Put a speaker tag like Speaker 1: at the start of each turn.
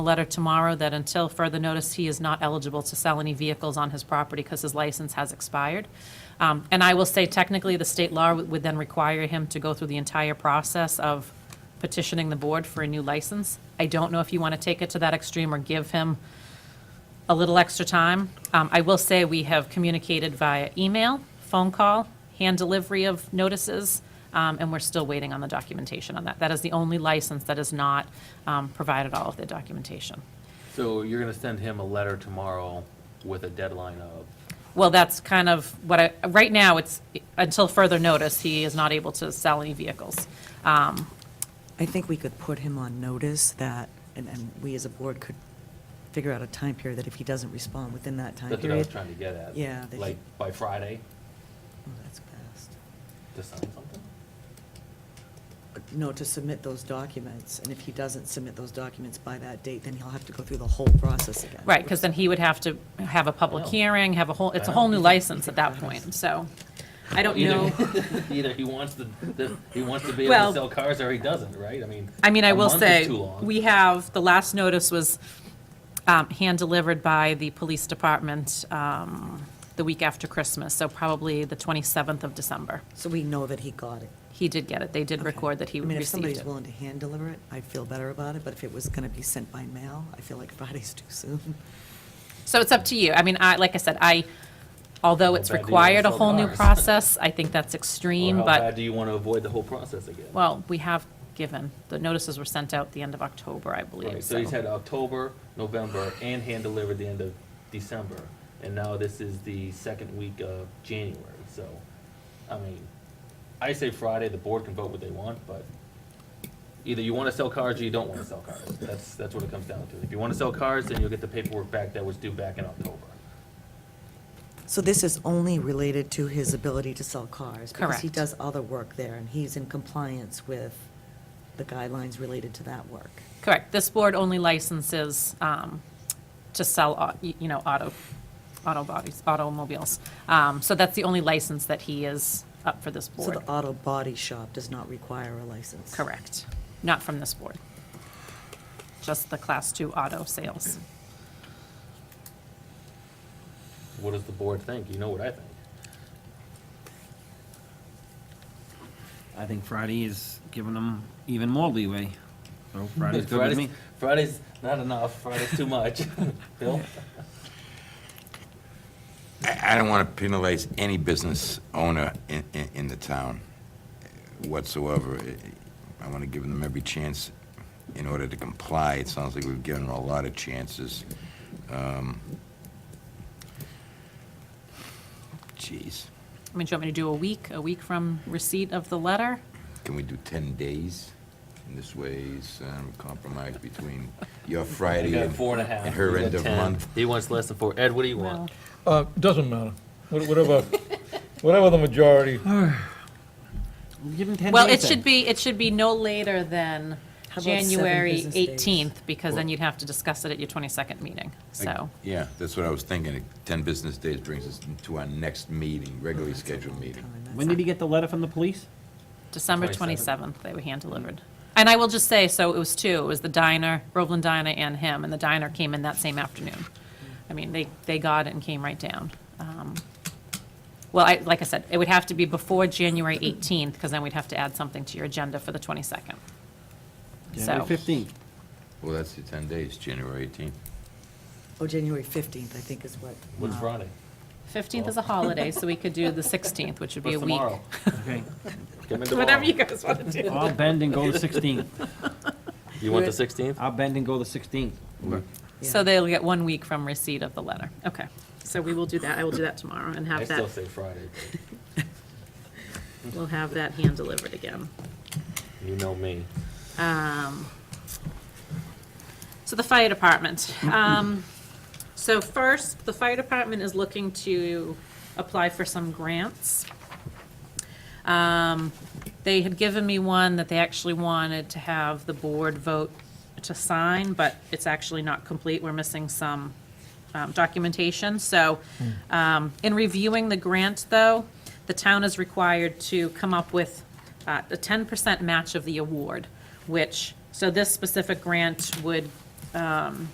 Speaker 1: a letter tomorrow that until further notice, he is not eligible to sell any vehicles on his property because his license has expired. Um, And I will say technically, the state law would would then require him to go through the entire process of petitioning the board for a new license. I don't know if you want to take it to that extreme or give him a little extra time. Um, I will say we have communicated via email, phone call, hand delivery of notices, um, and we're still waiting on the documentation on that. That is the only license that has not um, provided all of the documentation.
Speaker 2: So you're gonna send him a letter tomorrow with a deadline of,
Speaker 1: Well, that's kind of what I, right now, it's, until further notice, he is not able to sell any vehicles. Um,
Speaker 3: I think we could put him on notice that, and, and we as a board could figure out a time period that if he doesn't respond within that time
Speaker 2: that's what I was
Speaker 3: period.
Speaker 2: trying to get at.
Speaker 3: Yeah, they
Speaker 2: Like, by Friday,
Speaker 3: Oh, that's fast.
Speaker 2: to sign something?
Speaker 3: No, to submit those documents, and if he doesn't submit those documents by that date, then he'll have to go through the whole process again.
Speaker 1: Right, because then he would have to have a public
Speaker 2: I know.
Speaker 1: hearing, have a whole, it's a
Speaker 2: I
Speaker 1: whole
Speaker 2: know.
Speaker 1: new license at that point, so I don't know.
Speaker 2: Either, either he wants to, the- he wants to be able
Speaker 1: Well-
Speaker 2: to sell cars or he doesn't, right? I mean.
Speaker 1: I mean, I
Speaker 2: a
Speaker 1: will
Speaker 2: month is
Speaker 1: say,
Speaker 2: too long.
Speaker 1: we have, the last notice was um, hand-delivered by the police department um, the week after Christmas, so probably the 27th of December.
Speaker 3: So we know that he got it.
Speaker 1: He did get it. They did
Speaker 3: Okay.
Speaker 1: record that he
Speaker 3: I mean, if
Speaker 1: received
Speaker 3: somebody's
Speaker 1: it.
Speaker 3: willing to hand deliver it, I'd feel better about it, but if it was gonna be sent by mail, I feel like Friday's too soon.
Speaker 1: So it's up to you. I mean, I, like I said, I, although
Speaker 2: How
Speaker 1: it's
Speaker 2: bad do you
Speaker 1: required a
Speaker 2: wanna sell
Speaker 1: whole new
Speaker 2: cars?
Speaker 1: process, I think that's
Speaker 2: Or
Speaker 1: extreme,
Speaker 2: how bad
Speaker 1: but,
Speaker 2: do you wanna avoid the whole process again?
Speaker 1: well, we have given. The notices were sent out the end of October, I
Speaker 2: Right,
Speaker 1: believe,
Speaker 2: so he's
Speaker 1: so.
Speaker 2: had October, November, and hand delivered the end of December, and now this is the second week of January, so, I mean, I say Friday, the board can vote what they want, but either you wanna sell cars or you don't wanna sell cars, that's, that's what it comes down to. If you wanna sell cars, then you'll get the paperwork back that was due back in October.
Speaker 3: So this is only related to his ability to sell cars? Because he
Speaker 1: Correct.
Speaker 3: does other work there, and he's in compliance with the guidelines related to that work.
Speaker 1: Correct. This board only licenses um, to sell, au- y- you know, auto, auto bodies, automobiles. Um, So that's the only license that he is up for this
Speaker 3: So
Speaker 1: board.
Speaker 3: the auto body shop does not require a license?
Speaker 1: Correct. Not from this board. Just the Class Two auto sales.
Speaker 2: What does the board think? You know what I think.
Speaker 4: I think Friday is giving them even more leeway. So Mm-hmm. Friday's good with
Speaker 2: Friday's-
Speaker 4: me.
Speaker 2: Friday's not enough, Friday's too much. Bill?
Speaker 5: I I don't want to penalize any business owner in, in, in the town whatsoever. I- I want to give them every chance in order to comply. It sounds like we've given them a lot of chances. Um, Jeez,
Speaker 1: I mean, do you want me to do a week, a week from receipt of the letter?
Speaker 5: can we do 10 days? And this way, it's um, compromise between your Friday
Speaker 2: We got
Speaker 5: and
Speaker 2: four and a half.
Speaker 5: and her
Speaker 2: We got
Speaker 5: end of
Speaker 2: 10.
Speaker 5: month.
Speaker 2: He wants less than four. Ed, what do you
Speaker 1: Well,
Speaker 2: want?
Speaker 6: Uh, Doesn't matter. What- Whatever, whatever the majority,
Speaker 4: Give them ten
Speaker 1: Well, it
Speaker 4: days
Speaker 1: should
Speaker 4: then.
Speaker 1: be, it should be no later than
Speaker 3: How about seven
Speaker 1: January
Speaker 3: business days?
Speaker 1: 18th, because then you'd have to discuss it at your 22nd meeting, so.
Speaker 5: Yeah, that's what I was thinking. 10 business days brings us to our next meeting, regularly scheduled meeting.
Speaker 4: When did he get the letter from the police?
Speaker 1: December
Speaker 2: 27th.
Speaker 1: 27th, they were hand-delivered. And I will just say, so it was two, it was the diner, Groveland Diner and him, and the diner came in that same afternoon. I mean, they, they got it and came right down. Um, Well, I, like I said, it would have to be before January 18th, because then we'd have to add something to your agenda for the 22nd.
Speaker 4: January
Speaker 1: So-
Speaker 4: fifteenth.
Speaker 5: Well, that's the 10 days, January 18th.
Speaker 3: Oh, January 15th, I think is what.
Speaker 2: What's
Speaker 3: uh,
Speaker 2: Friday?
Speaker 1: 15th is a holiday, so we could do the 16th, which would be a
Speaker 2: What's
Speaker 1: week.
Speaker 2: tomorrow?
Speaker 4: Okay.
Speaker 2: Come in
Speaker 1: Whatever
Speaker 2: tomorrow.
Speaker 1: you guys want to do.
Speaker 4: I'll bend and go the sixteenth.
Speaker 2: You want the sixteenth?
Speaker 4: I'll bend and go the sixteenth.
Speaker 1: So
Speaker 3: Yeah.
Speaker 1: they'll get one week from receipt of the letter. Okay. So we will do that. I will do that tomorrow and
Speaker 2: I
Speaker 1: have
Speaker 2: still
Speaker 1: that,
Speaker 2: say Friday.
Speaker 1: we'll have that hand delivered again.
Speaker 2: but You know me.
Speaker 1: Um, So the fire department. Um, So first, the fire department is looking to apply for some grants. Um, They had given me one that they actually wanted to have the board vote to sign, but it's actually not complete. We're missing some um, documentation. So um, in reviewing the grant, though, the town is required to come up with uh, a 10% match of the award, which, so this specific grant would